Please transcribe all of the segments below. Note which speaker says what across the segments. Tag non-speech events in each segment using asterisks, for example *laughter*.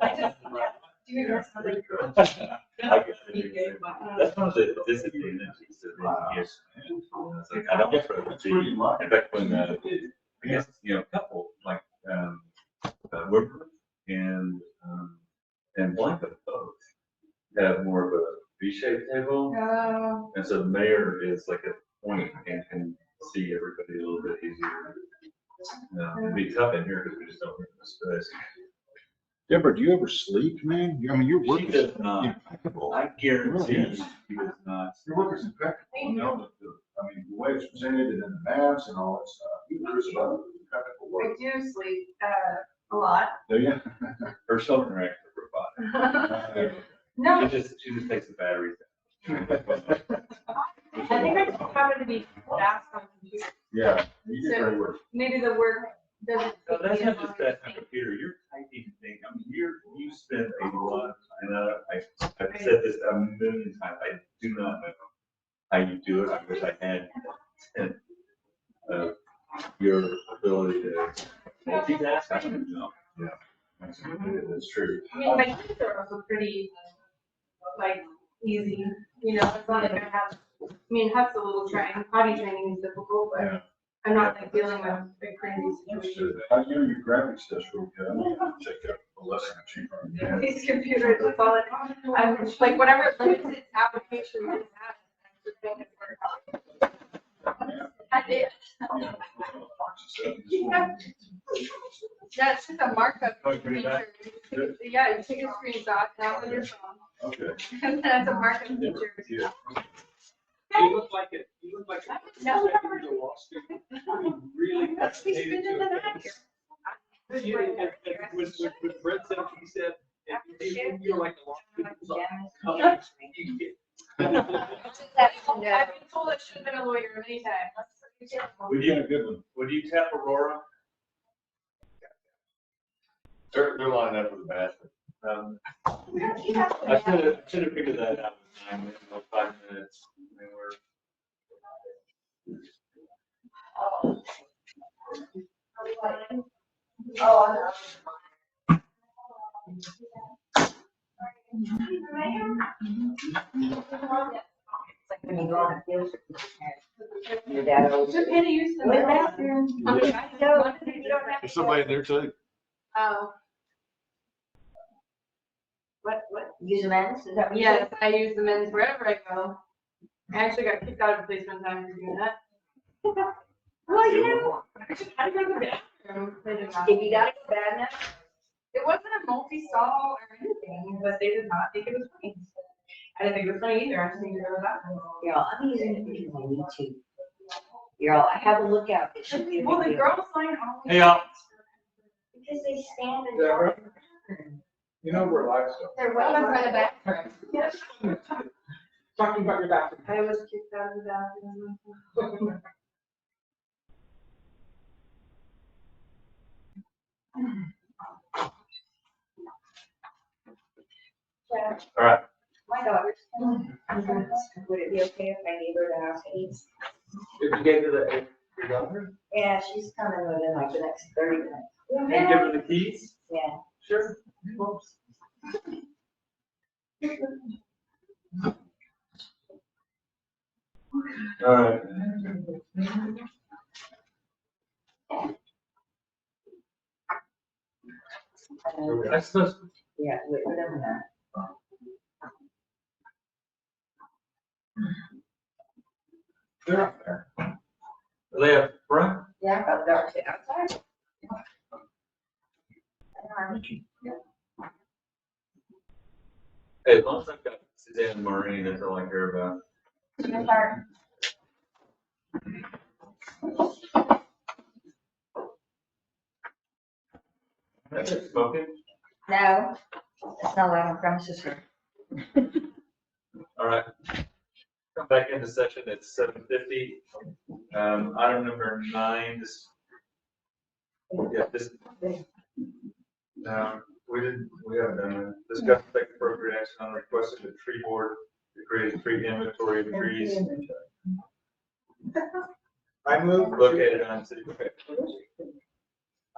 Speaker 1: I just, yeah,
Speaker 2: *laughs*
Speaker 1: do you remember somebody?
Speaker 2: That's one of the disadvantages of being here. It's like, I don't get for it. In fact, when, uh, I guess, you know, a couple, like, um, uh, Woodford and, um, and Blanca both have more of a V-shaped table.
Speaker 1: Uh,
Speaker 2: And so the mayor is like a point and can see everybody a little bit easier. Uh, it'd be tough in here because we just don't have the space.
Speaker 3: Deborah, do you ever sleep, man? You- I mean, your work
Speaker 2: She
Speaker 3: is
Speaker 2: does not,
Speaker 3: impeccable.
Speaker 2: I guarantee she does not.
Speaker 4: Your work is impeccable, you know, the- the- I mean, the way it's presented and in the maps and all that stuff, there's a lot of impeccable
Speaker 1: I
Speaker 4: work.
Speaker 1: do sleep, uh, a lot. *laughs*
Speaker 4: Do you? *laughs*
Speaker 2: Her children are actually robotic.
Speaker 1: No,
Speaker 2: She just, she just takes the batteries.
Speaker 1: *laughs* I think I just happen to be fast on computers.
Speaker 4: Yeah, you did great work.
Speaker 1: Maybe the word doesn't.
Speaker 2: So that's
Speaker 1: fit me
Speaker 2: not just
Speaker 1: in
Speaker 2: that
Speaker 1: my thing.
Speaker 2: computer, you're typing thing, I mean, you're, you spend a lot, of time, and I, I- I've said this a million times, I do not know how you do it, I wish I had. And, uh, your ability to multitask, I don't know.
Speaker 4: That's that's true.
Speaker 1: I mean, my kids are also pretty, like, easy, you know, it's not like I have, I mean, Huck's a little trying, potty training is difficult,
Speaker 4: Yeah.
Speaker 1: but I'm not like dealing with a crazy
Speaker 4: That's
Speaker 1: situation.
Speaker 4: true. I know your graphics test real good. I'm gonna Check out a lesson that you learned. Yeah.
Speaker 1: These computers, it's all, I'm, like, whatever limits its application it has, I'm just trying to work out. *laughs* I did,
Speaker 4: Yeah. Yeah.
Speaker 1: that's just a markup
Speaker 2: Oh, you put it back?
Speaker 1: feature. Yeah, you take a screenshot, not on your phone,
Speaker 4: Okay.
Speaker 1: *laughs* that's a markup feature.
Speaker 4: Yeah.
Speaker 5: You look like it, you look like. a-
Speaker 1: No.
Speaker 5: like you're a law student. *laughs* You Really.
Speaker 1: Let's be
Speaker 5: dedicated
Speaker 1: spending
Speaker 5: to
Speaker 1: the
Speaker 5: it.
Speaker 1: night here.
Speaker 5: You- and- and When, when- when Brett said, he said, if you- you're like a law student. it's like, come on, you get-
Speaker 1: I've been told I should have been a lawyer many times.
Speaker 2: Would
Speaker 4: Yeah,
Speaker 2: you,
Speaker 4: good one.
Speaker 2: would you tap Aurora?
Speaker 4: They're, they're lined up with the basket.
Speaker 2: Um,
Speaker 1: You have to
Speaker 2: I
Speaker 1: have-
Speaker 2: should have, should have figured that out in nine minutes, or five minutes, I mean, we're-
Speaker 6: When you go on a field trip, your dad always.
Speaker 1: Just had to use the
Speaker 6: Wait,
Speaker 1: bathroom.
Speaker 6: Yeah.
Speaker 1: You don't have to-
Speaker 3: There's somebody in there too.
Speaker 1: Oh,
Speaker 6: What, what, use a man, is that what you said?
Speaker 1: yes, I use the men's wherever I go. I actually got kicked out of the place one time for doing
Speaker 6: *laughs*
Speaker 1: that. Well, you know, I go to the bathroom. They did not.
Speaker 6: If you gotta go bad enough,
Speaker 1: It wasn't a multi-stall or anything, but they did not think it was funny. I didn't think it was funny either, I just needed to go to the bathroom.
Speaker 6: you know, I'm using it because I need to. You're all, I have a lookout, it should be a
Speaker 1: Well,
Speaker 6: big
Speaker 1: the
Speaker 6: deal.
Speaker 1: girls line always.
Speaker 2: Hey, y'all.
Speaker 6: Because they stand and.
Speaker 4: Deborah? You know, we're livestock.
Speaker 1: They're
Speaker 6: well over the
Speaker 1: bathroom. Yes.
Speaker 5: Talking about your bathroom.
Speaker 1: I was kicked out of the bathroom.
Speaker 6: Yeah,
Speaker 2: All right,
Speaker 6: My daughter's. Would it be okay if my neighbor at the house eats?
Speaker 5: If you gave her the, your daughter,
Speaker 6: Yeah, she's coming within like the next thirty minutes,
Speaker 5: and give her the keys,
Speaker 6: yeah.
Speaker 5: sure.
Speaker 2: all right.
Speaker 6: And,
Speaker 5: That's the,
Speaker 6: Yeah, wait, whatever that.
Speaker 4: They're up there.
Speaker 2: Are they up front?
Speaker 6: Yeah, about dark to outside.
Speaker 2: Hey, as long as I've got Suzanne and Maureen, that's all I care about. That's it, smoking?
Speaker 6: No, it's not allowed on premises here.
Speaker 2: All right. Come back into session at seven fifty. Um, item number nine, this. Yeah, this. Um, we didn't, we uh, haven't done it. Discuss and take appropriate action on request of the tree board to create a tree inventory of trees
Speaker 4: I move.
Speaker 2: located on city. okay,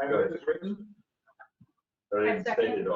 Speaker 4: I know, it's written.
Speaker 2: Already stated